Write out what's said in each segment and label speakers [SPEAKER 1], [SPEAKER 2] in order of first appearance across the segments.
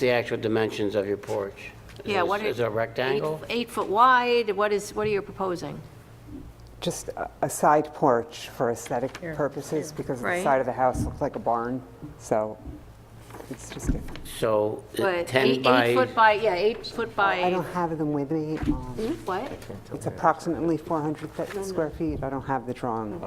[SPEAKER 1] the actual dimensions of your porch? Is
[SPEAKER 2] Yeah,
[SPEAKER 1] it-
[SPEAKER 2] what
[SPEAKER 1] Is
[SPEAKER 2] is
[SPEAKER 1] it a rectangle?
[SPEAKER 2] Eight foot wide, what is, what are you proposing?
[SPEAKER 3] Just a- a side porch for aesthetic purposes, because the
[SPEAKER 2] Right.
[SPEAKER 3] side of the house looks like a barn, so it's just, a-
[SPEAKER 1] So
[SPEAKER 2] But
[SPEAKER 1] 10
[SPEAKER 2] eight- Eight
[SPEAKER 1] Uh, by,
[SPEAKER 2] foot by, yeah, eight foot
[SPEAKER 3] I don't
[SPEAKER 2] by, Hmm?
[SPEAKER 3] have them with me. um,
[SPEAKER 2] what?
[SPEAKER 3] It's approximately 400 fe- square feet, I don't have the drawing.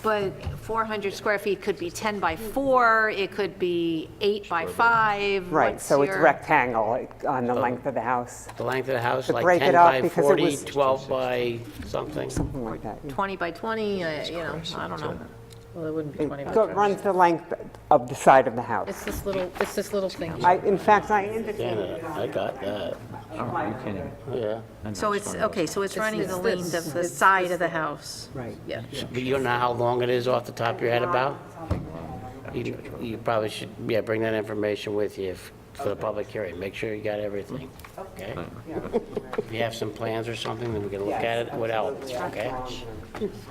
[SPEAKER 2] But 400 square feet could be 10 by 4, it could be 8 by 5.
[SPEAKER 3] Right,
[SPEAKER 2] what's
[SPEAKER 3] so it's
[SPEAKER 2] your-
[SPEAKER 3] rectangle like, on the length of the house,
[SPEAKER 1] the length of the house,
[SPEAKER 3] To
[SPEAKER 1] like
[SPEAKER 3] break
[SPEAKER 1] 10
[SPEAKER 3] it up
[SPEAKER 1] by
[SPEAKER 3] because it
[SPEAKER 1] 40,
[SPEAKER 3] was-
[SPEAKER 1] 12 by something?
[SPEAKER 3] something like that. yeah.
[SPEAKER 2] 20 by 20, uh, you know, I don't know.
[SPEAKER 4] Well, it wouldn't be 20
[SPEAKER 3] It go-
[SPEAKER 4] bucks.
[SPEAKER 3] runs the length of the side of the
[SPEAKER 4] It's
[SPEAKER 3] house.
[SPEAKER 4] this little, it's this little thing.
[SPEAKER 3] I, in fact, I
[SPEAKER 1] Yeah,
[SPEAKER 3] indicated,
[SPEAKER 1] no, I got that,
[SPEAKER 5] Are you kidding?
[SPEAKER 1] yeah.
[SPEAKER 2] So it's, okay, so it's running the length of the
[SPEAKER 4] It's
[SPEAKER 2] side
[SPEAKER 4] this
[SPEAKER 2] of the
[SPEAKER 4] little-
[SPEAKER 2] house.
[SPEAKER 3] right.
[SPEAKER 4] Yeah.
[SPEAKER 1] But you don't know how long it is off the top of your head about? You you probably should, yeah, bring that information with you if- for the public hearing. Make sure you got everything, okay? If you have some plans or something, then we can look at it with elements, okay?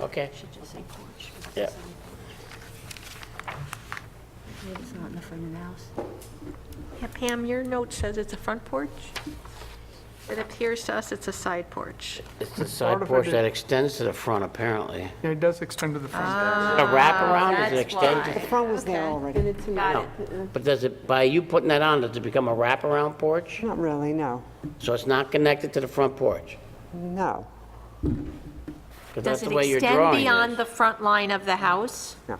[SPEAKER 1] Okay,
[SPEAKER 2] Just say porch.
[SPEAKER 1] yeah.
[SPEAKER 2] Maybe it's not in the front of the house. Yeah, Pam, your note says it's a front porch? It appears to us it's a side porch.
[SPEAKER 1] It's the side
[SPEAKER 6] of it
[SPEAKER 1] porch
[SPEAKER 6] is-
[SPEAKER 1] that extends to the front, apparently.
[SPEAKER 6] Yeah, it does extend to the front.
[SPEAKER 2] Ah.
[SPEAKER 1] A wraparound, does it
[SPEAKER 2] that's
[SPEAKER 1] extend? to-
[SPEAKER 3] the front was there
[SPEAKER 2] Okay.
[SPEAKER 3] already.
[SPEAKER 2] Got it.
[SPEAKER 1] But does it, by you putting that on, does it become a wraparound porch?
[SPEAKER 3] Not really, no,
[SPEAKER 1] So it's not connected to the front porch?
[SPEAKER 3] no,
[SPEAKER 1] 'Cause that's
[SPEAKER 2] Does
[SPEAKER 1] the
[SPEAKER 2] it
[SPEAKER 1] way your
[SPEAKER 2] extend
[SPEAKER 1] drawing
[SPEAKER 2] beyond
[SPEAKER 1] is.
[SPEAKER 2] the front line of the house?
[SPEAKER 3] no.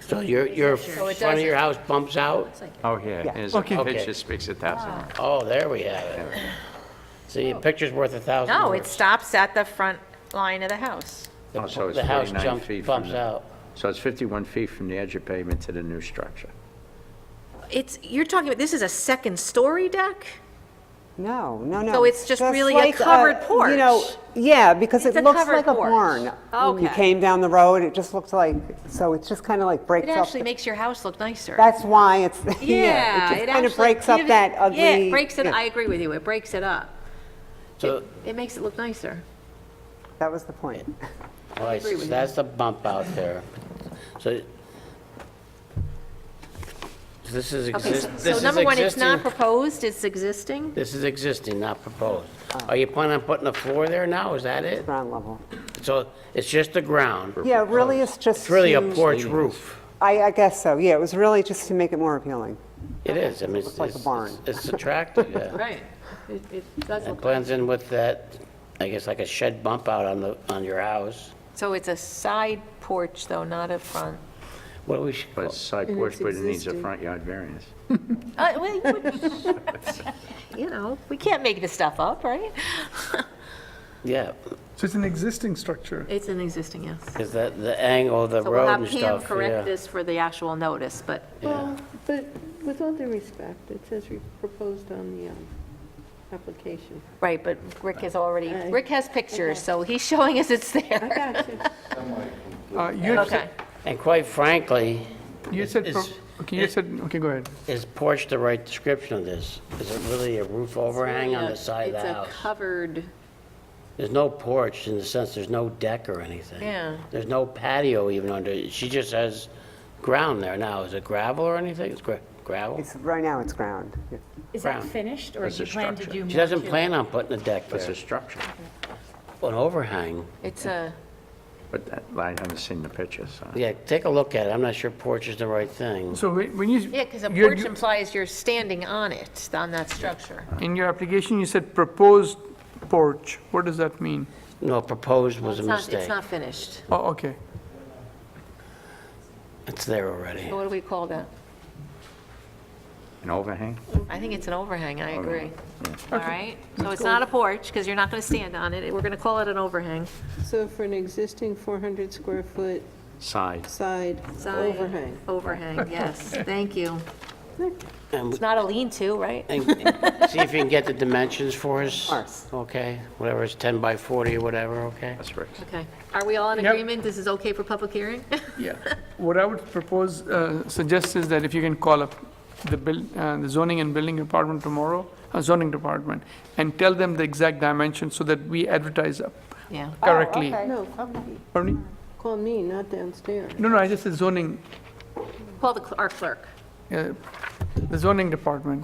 [SPEAKER 1] So your, your front of your house bumps out?
[SPEAKER 5] Oh, yeah,
[SPEAKER 3] Yeah.
[SPEAKER 5] it's,
[SPEAKER 6] Okay.
[SPEAKER 5] it just makes it that simple.
[SPEAKER 1] Oh, there we have it. See, a picture's worth a thousand
[SPEAKER 2] Oh. No, it
[SPEAKER 1] words.
[SPEAKER 2] stops at the front line of the house.
[SPEAKER 1] The-
[SPEAKER 5] Oh, so it's
[SPEAKER 1] The house
[SPEAKER 5] 49
[SPEAKER 1] jumps,
[SPEAKER 5] feet from
[SPEAKER 1] bumps
[SPEAKER 5] the-
[SPEAKER 1] out.
[SPEAKER 5] So it's 51 feet from the edge of pavement to the new structure.
[SPEAKER 2] It's, you're talking about, this is a second-story deck?
[SPEAKER 3] No, no, no.
[SPEAKER 2] So it's just
[SPEAKER 3] That's
[SPEAKER 2] really a
[SPEAKER 3] like
[SPEAKER 2] covered
[SPEAKER 3] You know,
[SPEAKER 2] porch.
[SPEAKER 3] yeah, because
[SPEAKER 2] It's
[SPEAKER 3] it
[SPEAKER 2] a
[SPEAKER 3] looks
[SPEAKER 2] covered
[SPEAKER 3] like a
[SPEAKER 2] porch.
[SPEAKER 3] barn. When You
[SPEAKER 2] Okay.
[SPEAKER 3] came down the road, it just looked like, so it's just kind of like breaks
[SPEAKER 2] It
[SPEAKER 3] up.
[SPEAKER 2] actually
[SPEAKER 3] the-
[SPEAKER 2] makes your house look nicer.
[SPEAKER 3] That's why it's,
[SPEAKER 2] Yeah.
[SPEAKER 3] yeah, it just kind
[SPEAKER 2] actually
[SPEAKER 3] of breaks up
[SPEAKER 2] gives-
[SPEAKER 3] that ugly.
[SPEAKER 2] Yeah, it breaks it,
[SPEAKER 3] yeah.
[SPEAKER 2] I agree with you, it breaks it up.
[SPEAKER 1] So,
[SPEAKER 2] It makes it look nicer.
[SPEAKER 3] That was the point.
[SPEAKER 1] all right, so that's the bump out there. So so this is,
[SPEAKER 2] Okay,
[SPEAKER 1] exist-
[SPEAKER 2] so-
[SPEAKER 1] this
[SPEAKER 2] so
[SPEAKER 1] is
[SPEAKER 2] number one, it's not
[SPEAKER 1] existing,
[SPEAKER 2] proposed, it's existing?
[SPEAKER 1] this is existing, not proposed.
[SPEAKER 3] Ah.
[SPEAKER 1] Are you planning on putting a floor there now, is that it?
[SPEAKER 3] Ground level.
[SPEAKER 1] So it's just the ground.
[SPEAKER 3] Yeah, really, it's just.
[SPEAKER 1] It's really a
[SPEAKER 3] to-
[SPEAKER 1] porch roof.
[SPEAKER 3] I, I guess so, yeah, it was really just to make it more appealing.
[SPEAKER 1] It is, I mean, it's,
[SPEAKER 3] Looks like a
[SPEAKER 1] it's-
[SPEAKER 3] barn.
[SPEAKER 1] it's attractive, yeah.
[SPEAKER 2] Right. It it does
[SPEAKER 1] It
[SPEAKER 2] look
[SPEAKER 1] blends in with that, I guess like a shed bump out on the, on your house.
[SPEAKER 2] So it's a side porch, though, not a front.
[SPEAKER 1] What we should
[SPEAKER 5] But
[SPEAKER 1] call
[SPEAKER 5] it's side porch, but it needs a front yard variance.
[SPEAKER 2] Uh, well, you would- You know, we can't make this stuff up, right?
[SPEAKER 1] Yeah,
[SPEAKER 6] So it's an existing structure.
[SPEAKER 2] It's an existing, yes.
[SPEAKER 1] because the, the angle of the
[SPEAKER 2] So we'll
[SPEAKER 1] road
[SPEAKER 2] have
[SPEAKER 1] and
[SPEAKER 2] Pam
[SPEAKER 1] stuff,
[SPEAKER 2] correct
[SPEAKER 1] yeah.
[SPEAKER 2] this for the actual notice, but
[SPEAKER 1] yeah.
[SPEAKER 7] Well, but with all due respect, it says re- proposed on the um, application.
[SPEAKER 2] Right, but Rick has already,
[SPEAKER 7] Aye.
[SPEAKER 2] Rick has pictures, so he's showing us it's
[SPEAKER 7] I
[SPEAKER 2] there.
[SPEAKER 7] got you.
[SPEAKER 6] Uh, You had
[SPEAKER 2] Okay.
[SPEAKER 6] said,
[SPEAKER 1] And quite frankly,
[SPEAKER 6] you had said, pro-
[SPEAKER 1] It's-
[SPEAKER 6] okay, you had said, okay, go ahead.
[SPEAKER 1] is porch the right description of this? Is it really a roof overhang on the side of the
[SPEAKER 7] It's a
[SPEAKER 1] house?
[SPEAKER 7] covered,
[SPEAKER 1] There's no porch in the sense, there's no deck or anything.
[SPEAKER 2] Yeah.
[SPEAKER 1] There's no patio even under, it. she just has ground there now. Is it gravel or anything? It's gra- gravel?
[SPEAKER 3] It's, right now it's ground. yeah.
[SPEAKER 8] Is that
[SPEAKER 1] Brown.
[SPEAKER 8] finished, or
[SPEAKER 5] That's
[SPEAKER 8] do you
[SPEAKER 5] a
[SPEAKER 8] plan to
[SPEAKER 5] structure.
[SPEAKER 8] do more?
[SPEAKER 1] She doesn't
[SPEAKER 8] to it?
[SPEAKER 1] plan on putting a deck
[SPEAKER 5] It's
[SPEAKER 1] there,
[SPEAKER 5] a structure,
[SPEAKER 1] an overhang.
[SPEAKER 2] It's a,
[SPEAKER 5] but that- I haven't seen the pictures, so.
[SPEAKER 1] Yeah, take a look at it. I'm not sure porch is the right thing.
[SPEAKER 6] So when when you.
[SPEAKER 2] yeah, because a
[SPEAKER 6] you-
[SPEAKER 2] porch
[SPEAKER 6] you-
[SPEAKER 2] implies you're standing on it, on that structure.
[SPEAKER 6] In your application, you said proposed porch. What does that mean?
[SPEAKER 1] No, proposed was a
[SPEAKER 2] It's not, it's
[SPEAKER 1] mistake.
[SPEAKER 2] not finished.
[SPEAKER 6] Oh, okay.
[SPEAKER 1] It's there already.
[SPEAKER 2] What do we call that?
[SPEAKER 5] An overhang?
[SPEAKER 2] I think it's an overhang, I agree.
[SPEAKER 5] Overhang,
[SPEAKER 2] All right, so it's not a porch, because you're not going to stand on it, we're going to call it an overhang.
[SPEAKER 7] so for an existing 400 square foot
[SPEAKER 5] Side.
[SPEAKER 7] side
[SPEAKER 2] Side.
[SPEAKER 7] overhang.
[SPEAKER 2] Overhang, yes, thank you.
[SPEAKER 1] And
[SPEAKER 2] It's not a lean-to, right?
[SPEAKER 1] and see if you can get the dimensions for us.
[SPEAKER 3] course.
[SPEAKER 1] Okay, whatever, it's 10 by 40 or whatever, okay?
[SPEAKER 5] That's Rick's.
[SPEAKER 2] Okay, are we all in
[SPEAKER 6] Yep.
[SPEAKER 2] agreement, this is okay for public hearing?
[SPEAKER 6] Yeah. What I would propose, uh, suggest is that if you can call up the buil- uh, the zoning and building department tomorrow, uh, zoning department, and tell them the exact dimension so that we advertise up
[SPEAKER 2] Yeah.
[SPEAKER 6] correctly.
[SPEAKER 7] No,
[SPEAKER 6] Pardon me?
[SPEAKER 7] call me, not downstairs.
[SPEAKER 6] No, no, I just said zoning,
[SPEAKER 2] Call the, cl- our clerk.
[SPEAKER 6] uh, the zoning department